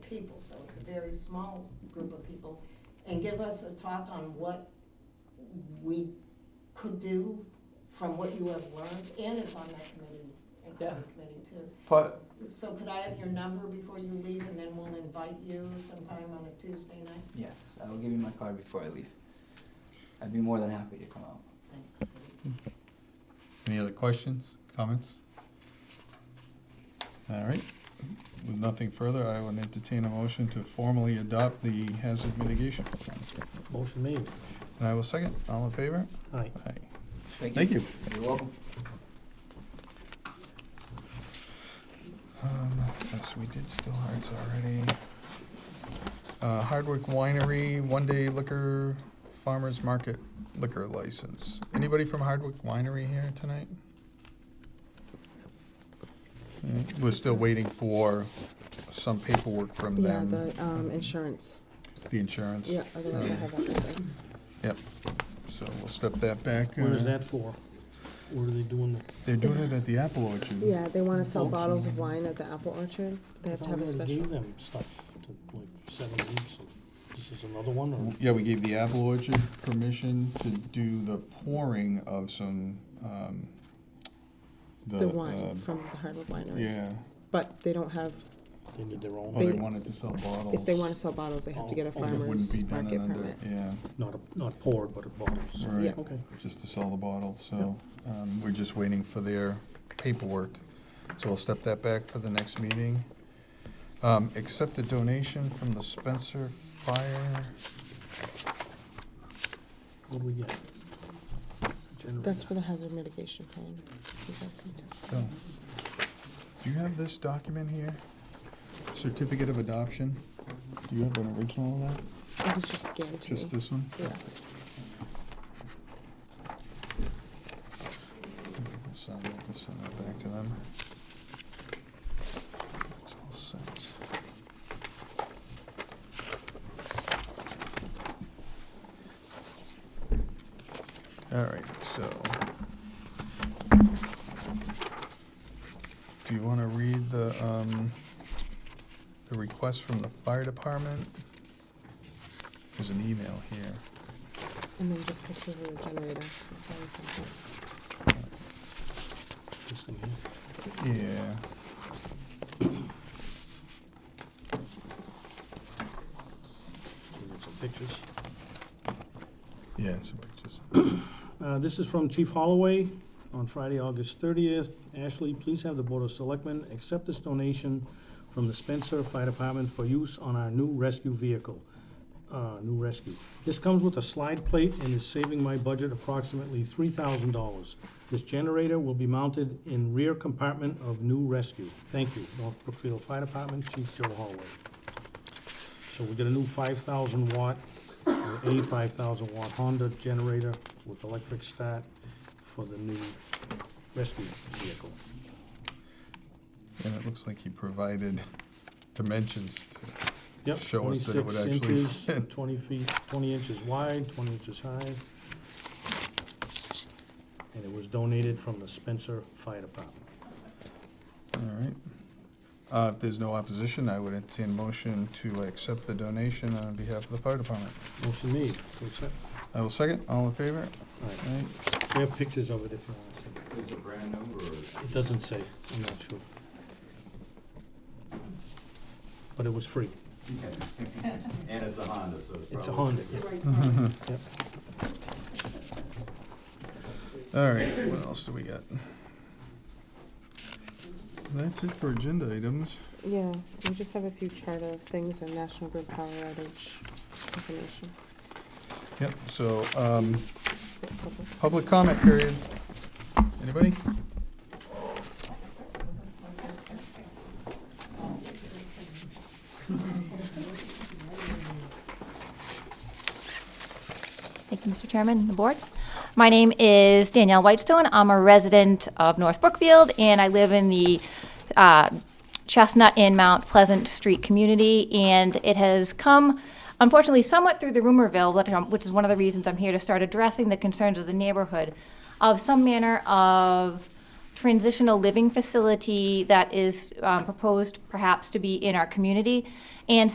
people, so it's a very small group of people, and give us a talk on what we could do from what you have learned, and it's on that committee, and Yeah. the committee too. But, So could I have your number before you leave, and then we'll invite you sometime on a Tuesday night? yes, I will give you my card before I leave. I'd be more than happy to come out. Thanks. Any other questions, comments? All right, with nothing further, I would entertain a motion to formally adopt the hazard mitigation plan. Motion made. And I will second, all in favor? Aye. Aye. Thank you. You're welcome. Um, yes, we did Still Hearts already. Uh, Hardwick Winery, one day liquor, farmer's market liquor license. Anybody from Hardwick Winery here tonight? Mm, We're still waiting for some paperwork from Yeah, them. the, um, insurance. The insurance? Um, Yeah, otherwise I have everything. Yep, so we'll step that back. Where is uh, that for? Where are they doing the? They're doing it at the apple orchard. Yeah, they wanna sell bottles of wine at the apple orchard. They have to have a I thought we already special. Gave them stuff to like seven weeks. and This is another one or? Yeah, we gave the apple orchard permission to do the pouring of some, um, the. The uh, wine from the Hardwood Winery. Yeah, But they don't have, They need their oh, they own, They- wanted to sell bottles. if they wanna sell bottles, they have to get a Oh, oh, it It wouldn't be farmer's done in market under, permit. yeah, not, a- not poured, but a bottles. right, Okay. just to sell the bottles, so, um, we're just waiting for their paperwork. So we'll step that back for the next meeting. Um, accept a donation from the Spencer Fire What do we get? That's for the hazard mitigation plan. You guys can just- So, do you have this document here? Certificate of adoption? Do you have an original of that? It was just scanned to me. Just this one? Yeah. We'll Send that, we'll send that back to them. It's all set. All right, so. Do you want to read the, um, the request from the fire department? There's an email here. And then just pictures of the generators. It's always something. This thing here. Yeah. We got Some pictures. Yeah, some pictures. Uh, This is from Chief Holloway on Friday, August 30th. Ashley, please have the Board of Selectmen accept this donation from the Spencer Fire Department for use on our new rescue vehicle, uh, new rescue. This comes with a slide plate and is saving my budget approximately $3,000. This generator will be mounted in rear compartment of new rescue. Thank you, North Brookfield Fire Department, Chief Joe Holloway. So we get a new 5,000 watt, or 85,000 watt Honda generator with electric start for the new rescue vehicle. And it looks like he provided dimensions to, Yep, Show us that it would 26 actually inches, fit. 20 feet, 20 inches wide, 20 inches high. And it was donated from the Spencer Fire Department. all right. Uh, if there's no opposition, I would entertain a motion to accept the donation on behalf of the fire department. Motion made, to accept. I will second, all in favor? All All right, right, we have pictures of it if you want to Is it brand new or? see. It doesn't say, I'm not sure. But it was free. And it's a Honda, so it's probably. It's a Honda, yeah. Yep. all right, what else do we got? That's it for agenda items. Yeah, we just have a few chart of things and National Grid power outage information. Yep, so, um, Couple. public comment period. Anybody? Thank you, Mr. Chairman and the board. My name is Danielle Whitestone. I'm a resident of North Brookfield, and I live in the uh, Chestnut and Mount Pleasant Street community. And it has come, unfortunately, somewhat through the rumorville, but, um, which is one of the reasons I'm here to start addressing the concerns of the neighborhood, of some manner of transitional living facility that is um, proposed perhaps to be in our community. And